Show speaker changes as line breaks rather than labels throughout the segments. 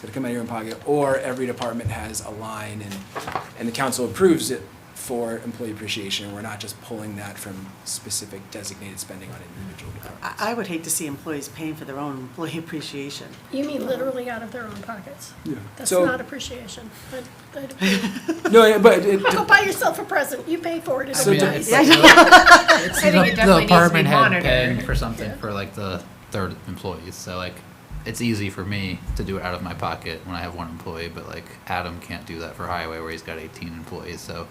to come out of your own pocket, or every department has a line and, and the council approves it for employee appreciation. We're not just pulling that from specific designated spending on individual
I,
departments.
I would hate to see employees paying for their own employee appreciation.
You mean literally out of their own pockets?
Yeah.
That's
So-
not appreciation. I- I don't-
No, yeah, but it,
Go buy yourself a present, you pay for it, it's
So
a
do-
nice.
Yeah, I know.
It's
I think it
the,
definitely
the
needs to be
apartment head
monitored.
paying for something
Yeah.
for like the third employees, so like, it's easy for me to do it out of my pocket when I have one employee, but like Adam can't do that for highway where he's got eighteen employees, so.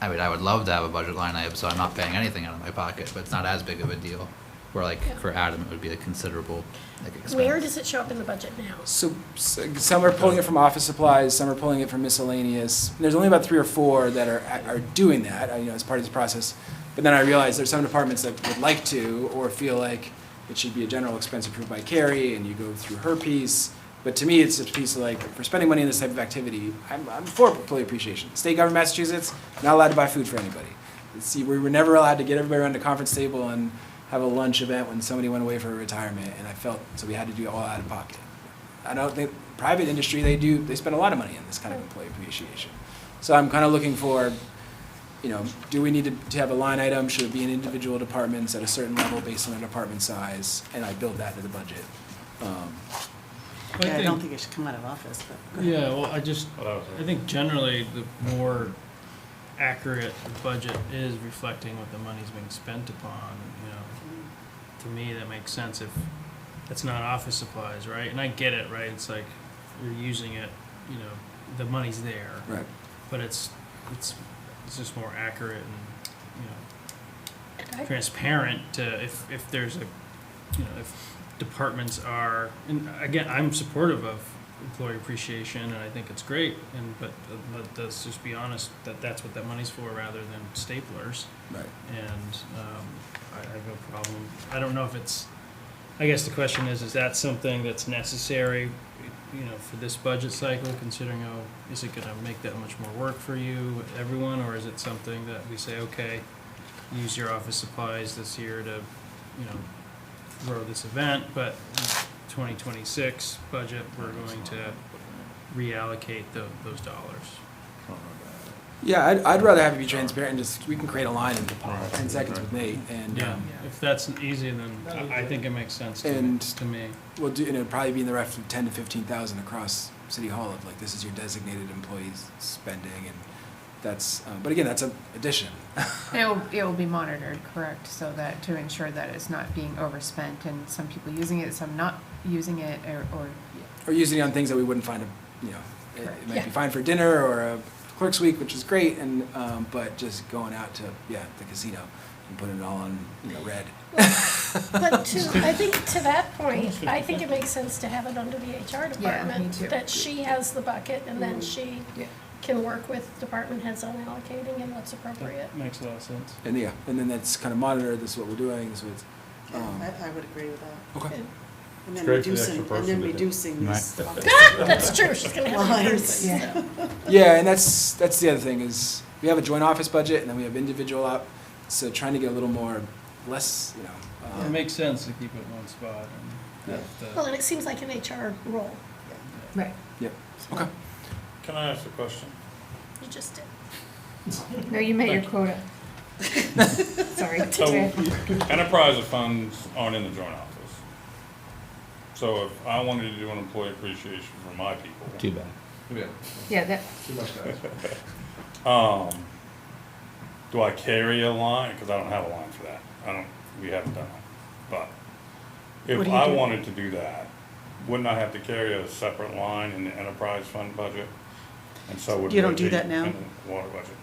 I mean, I would love to have a budget line item, so I'm not paying anything out of my pocket, but it's not as big of a deal. Where like,
Yeah.
for Adam, it would be a considerable, like expense.
Where does it show up in the budget now?
So, s some are pulling it from office supplies, some are pulling it from miscellaneous. There's only about three or four that are, are doing that, uh, you know, as part of this process. But then I realized there's some departments that would like to, or feel like it should be a general expense approved by Carrie, and you go through her piece. But to me, it's a piece of like, for spending money in this type of activity, I'm, I'm for employee appreciation. State government of Massachusetts, not allowed to buy food for anybody. See, we were never allowed to get everybody around the conference table and have a lunch event when somebody went away for retirement, and I felt, so we had to do it all out of pocket. I don't think private industry they do they spend a lot of money on this kind of employee appreciation. So I'm kind of looking for, you know, do we need to, to have a line item? Should it be in individual departments at a certain level based on their department size? And I build that into the budget. Um,
Yeah, I don't think it should come out of office, but.
Yeah, well, I just, I think generally the more accurate the budget is reflecting what the money's being spent upon, you know. To me, that makes sense if it's not office supplies, right? And I get it, right? It's like you're using it, you know, the money's there.
right.
But it's, it's, it's just more accurate and, you know,
I-
transparent to if, if there's a, you know, if departments are, and again, I'm supportive of employee appreciation and I think it's great, and, but, but let's just be honest, that that's what that money's for rather than staplers.
Right.
And, um, I, I have no problem, I don't know if it's, I guess the question is, is that something that's necessary, you know, for this budget cycle, considering how, is it gonna make that much more work for you, everyone, or is it something that we say, okay, use your office supplies this year to, you know, grow this event, but twenty twenty-six budget, we're going to reallocate tho- those dollars.
Yeah, I'd, I'd rather have it be transparent and just we can create a line in ten seconds with Nate and
Yeah,
um,
if that's easy, then I, I think it makes sense to,
And-
to me.
we'll do and it'd probably be in the ref of ten to fifteen thousand across City Hall of like this is your designated employees spending and that's uh, but again that's an addition.
It will, it will be monitored, correct, so that, to ensure that it's not being overspent and some people using it, some not using it, or, or,
or using it on things that we wouldn't find, a- you know, it- it might be
Yeah.
fine for dinner or a clerk's week, which is great, and, um, but just going out to, yeah, the casino and putting it all on, you know, red.
But to, I think to that point, I think it makes sense to have it under the HR
too.
department, that she has the bucket and then she
Yeah.
can work with department heads on allocating and what's appropriate.
That makes a lot of sense.
And yeah, and then that's kind of monitored, this is what we're doing, this is what's, um,
I, I would agree with that.
okay.
And then
great for the extra
reducing, and
person
then
to do.
reducing these.
That's true, she's gonna have a
Lines.
person.
yeah.
Yeah, and that's, that's the other thing is, we have a joint office budget, and then we have individual op, so trying to get a little more, less, you know.
It
um,
makes sense to keep it in one spot and have the.
Well, and it seems like an HR role,
Right.
Yep, okay.
Can I ask a question?
you just did.
No, you met your quota. Sorry.
So, enterprise funds aren't in the joint office. So if I wanted to do an employee appreciation for my people,
Too bad.
Yeah, that,
um, do I carry a line? Cause I don't have a line for that. I don't, we haven't done it. But
What
if
do you
I
do?
wanted to do that, wouldn't I have to carry a separate line in the enterprise fund budget? And so would.
You don't
would
do
be
that now?
in the Water budget.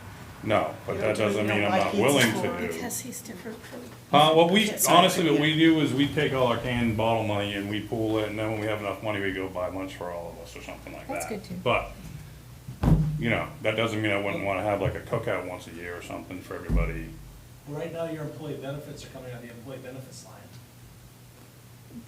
No, but
You
that
don't do it
doesn't
now?
mean I'm
Why
not
can't
willing
you
to do.
Because he's different from,
Uh, what we,
Yeah, sorry.
honestly, what we do is we take all our canned bottle money and we pool it, and then when we have enough money, we go buy lunch for all of us or something like that.
That's good, too.
But, you know, that doesn't mean I wouldn't wanna have like a cookout once a year or something for everybody.
Right now, your employee benefits are coming out of the employee benefits line.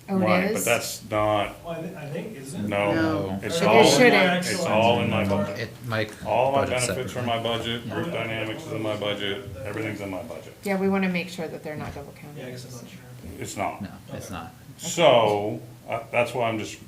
oh,
Right,
it is?
But that's not,
Well, I thi- I think, isn't it?
no,
No.
it's
It
all, in
shouldn't.
my- it's all in my budget.
It, Mike.
All my
budget's
benefits are
separate.
in my budget, group dynamics is in my budget, everything's in my budget.
Yeah, we wanna make sure that they're not double
Yeah, I
counted.
guess I'm not sure.
It's not.
No, it's not.
So, uh, that's why I'm just